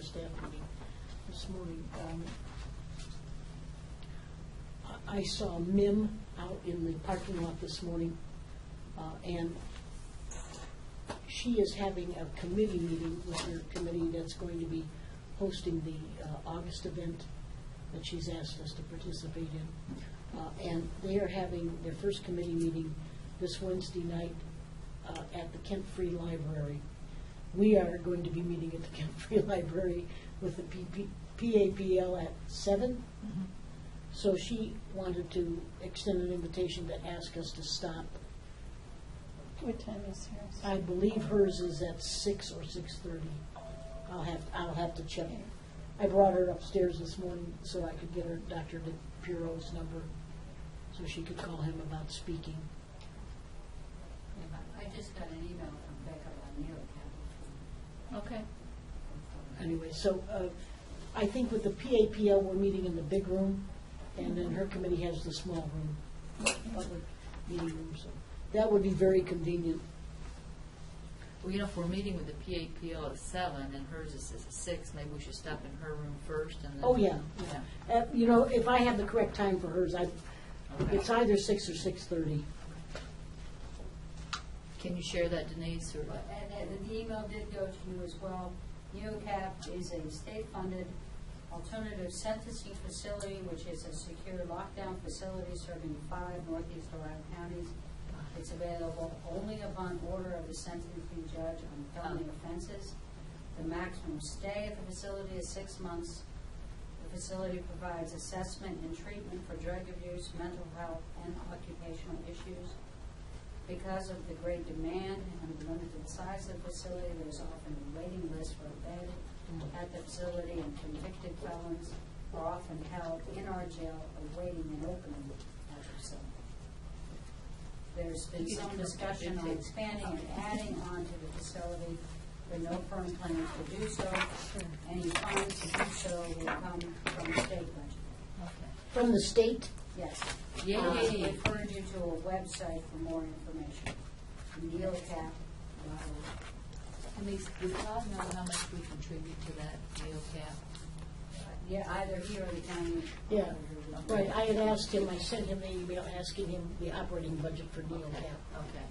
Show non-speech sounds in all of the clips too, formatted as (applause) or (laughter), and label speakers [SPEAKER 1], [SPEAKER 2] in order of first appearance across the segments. [SPEAKER 1] staff meeting this morning, um, I- I saw MIM out in the parking lot this morning, uh, and she is having a committee meeting with her committee that's going to be hosting the uh, August event that she's asked us to participate in. Uh, And they are having their first committee meeting this Wednesday night uh, at the Kent Free Library. We are going to be meeting at the Kent Free (laughs) Library with the PP PAPL at seven. So she wanted to extend an invitation to ask us to stop.
[SPEAKER 2] What time is yours?
[SPEAKER 1] I believe hers is at six or six thirty. I'll have, I'll have to check. I brought her upstairs this morning so I could get her Dr. DePiro's number, so she could call him about speaking.
[SPEAKER 3] I just got an email from Becca Lanier, Capital.
[SPEAKER 2] Okay.
[SPEAKER 1] Anyway, so uh, I think with the PAPL, we're meeting in the big room, and then her committee has the small room, public meeting room, so that would be very convenient.
[SPEAKER 3] Well, you know, if we're meeting with the PAPL at seven and hers is at six, maybe we should stop in her room first and then.
[SPEAKER 1] Oh, yeah.
[SPEAKER 3] Yeah.
[SPEAKER 1] Uh, You know, if I have the correct time for hers, I,
[SPEAKER 3] Okay.
[SPEAKER 1] it's either six or six-thirty.
[SPEAKER 3] Can you share that Denise or?
[SPEAKER 4] And, and the email did go to you as well. NeoCap is a state-funded alternative sentencing facility, which is a secure lockdown facility serving five northeast Ohio counties. It's available only upon order of the sentencing judge on felony offenses. The maximum stay at the facility is six months. The facility provides assessment and treatment for drug abuse, mental health, and occupational issues. Because of the great demand and the limited size of the facility, there's often a waiting list for a bed at the facility, and convicted felons are often held in our jail awaiting an opening at the facility. There's been some discussion on expanding and adding on to the facility, but no firm plans to do so. Any funds to do so will come from the state budget.
[SPEAKER 3] Okay.
[SPEAKER 1] From the state?
[SPEAKER 4] Yes.
[SPEAKER 3] Yay.
[SPEAKER 1] Uh,
[SPEAKER 4] I referred you to a website for more information, neocap.
[SPEAKER 3] Denise, do Todd know how much we contribute to that NeoCap?
[SPEAKER 4] Yeah, either here or the county.
[SPEAKER 1] Yeah, right, I had asked him, I sent him an email asking him the operating budget for NeoCap.
[SPEAKER 3] Okay.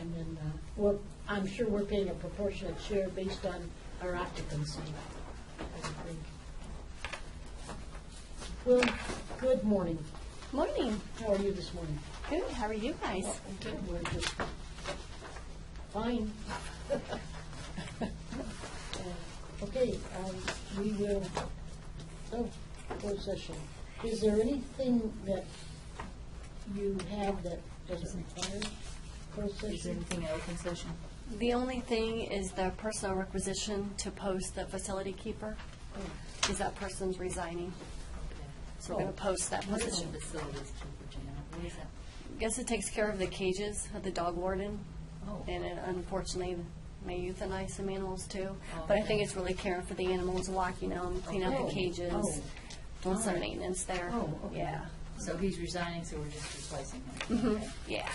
[SPEAKER 1] And then, uh, we're, I'm sure we're paying a proportionate share based on our occupancy, I would think. Well, good morning.
[SPEAKER 2] Morning.
[SPEAKER 1] How are you this morning?
[SPEAKER 2] Good. How are you guys?
[SPEAKER 1] Good. We're just fine. Uh, Okay, um, we will, oh, closed session. Is there anything that you have that doesn't require closed
[SPEAKER 3] Is there
[SPEAKER 1] session?
[SPEAKER 3] anything in open session?
[SPEAKER 5] The only thing is the personal requisition to post the facility keeper, is that person's resigning. So we're going to post that
[SPEAKER 3] What is
[SPEAKER 5] position.
[SPEAKER 3] the facilities keeper, Janet? What is that?
[SPEAKER 5] Guess it takes care of the cages of the dog warden,
[SPEAKER 3] Oh.
[SPEAKER 5] and it unfortunately may euthanize some animals too. But I
[SPEAKER 3] Okay.
[SPEAKER 5] think it's really caring for the animals, locking them, cleaning out
[SPEAKER 3] Oh,
[SPEAKER 5] the cages,
[SPEAKER 3] oh.
[SPEAKER 5] doing some maintenance there.
[SPEAKER 3] Oh, okay.
[SPEAKER 5] Yeah,
[SPEAKER 3] So he's resigning, so we're just replacing him. Okay.
[SPEAKER 5] yeah,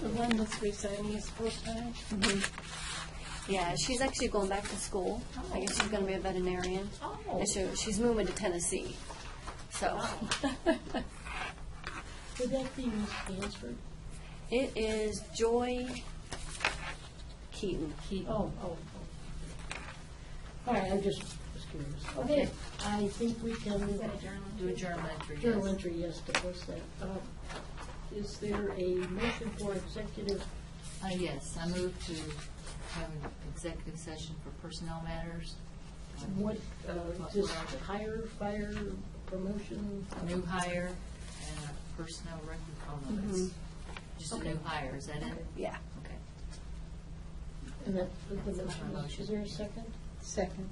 [SPEAKER 2] The one that's resigning is full-time?
[SPEAKER 5] Mm-hmm. yeah. She's actually going back to school. I guess she's going to be a veterinarian.
[SPEAKER 3] Oh.
[SPEAKER 5] And she- she's moving to Tennessee, so.
[SPEAKER 1] Would that be Ms. Hansford?
[SPEAKER 5] It is Joy Keaton.
[SPEAKER 3] Keaton.
[SPEAKER 1] Oh, oh, oh. All right, I just was curious. Okay, I think we can.
[SPEAKER 3] Do a journal entry. yes.
[SPEAKER 1] Journal entry, yes, to post that. Uh, Is there a motion for executive
[SPEAKER 3] Uh, Yes, I move to have an executive session for personnel matters. um,
[SPEAKER 1] What, uh,
[SPEAKER 3] What
[SPEAKER 1] just
[SPEAKER 3] were the
[SPEAKER 1] hire, fire, promotion?
[SPEAKER 3] New hire and a personnel record, oh no, that's just a new hire, is that it?
[SPEAKER 5] Yeah.
[SPEAKER 3] Okay.
[SPEAKER 1] And that, the
[SPEAKER 3] That's my
[SPEAKER 1] motion, was-
[SPEAKER 3] motion.
[SPEAKER 1] is there a second?
[SPEAKER 2] Second.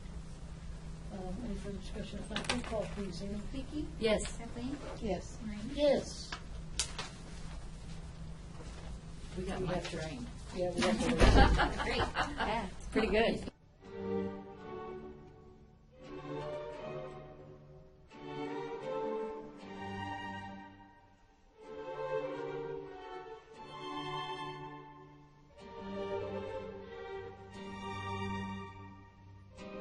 [SPEAKER 1] Um, Any further discussion? If not, roll call please, Amy.
[SPEAKER 6] Vicki?
[SPEAKER 3] Yes.
[SPEAKER 6] Kathleen?
[SPEAKER 2] Yes.
[SPEAKER 6] Maureen?
[SPEAKER 1] Yes.
[SPEAKER 3] We got Mike trained.
[SPEAKER 1] Yeah, we have to.
[SPEAKER 5] Yeah, it's pretty good.